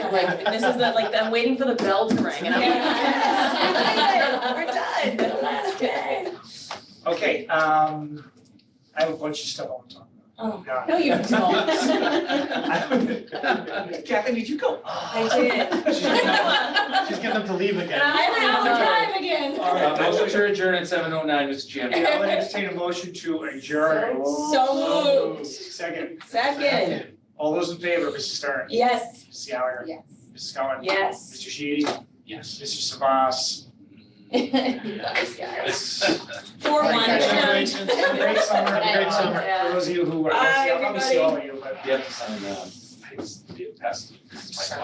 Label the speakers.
Speaker 1: that, like, this is the, like, I'm waiting for the bell to ring and I'm like. We're done, the last day.
Speaker 2: Okay, um, I have a bunch of stuff I want to talk
Speaker 1: Oh,
Speaker 2: about.
Speaker 1: no, you
Speaker 2: don't. Kathy, did you go?
Speaker 1: I did.
Speaker 2: She's getting-
Speaker 3: She's getting them to leave again.
Speaker 1: I'm out of time
Speaker 4: again.
Speaker 2: All right,
Speaker 5: Uh,
Speaker 2: that's
Speaker 5: motion to adjourn at seven oh nine, Mr. Chairman.
Speaker 2: Yeah, I'll entertain a motion to adjourn.
Speaker 4: So moved.
Speaker 2: Second,
Speaker 4: Second,
Speaker 2: all those in favor, Mrs. Stern,
Speaker 4: yes.
Speaker 2: Mrs. Gallagher,
Speaker 4: Yes.
Speaker 2: Mrs. Cohen,
Speaker 1: Yes.
Speaker 2: Mr. Sheedy,
Speaker 5: Yes.
Speaker 2: Mr. Savas.
Speaker 4: Nice guys. Four one.
Speaker 3: Thank you.
Speaker 4: adjourned.
Speaker 3: Congratulations.
Speaker 2: Have a Great summer.
Speaker 3: Great summer.
Speaker 2: For those of you who are,
Speaker 4: Bye,
Speaker 2: obviously, I'll see all of you, but.
Speaker 5: You have to sign, uh, I just, pass.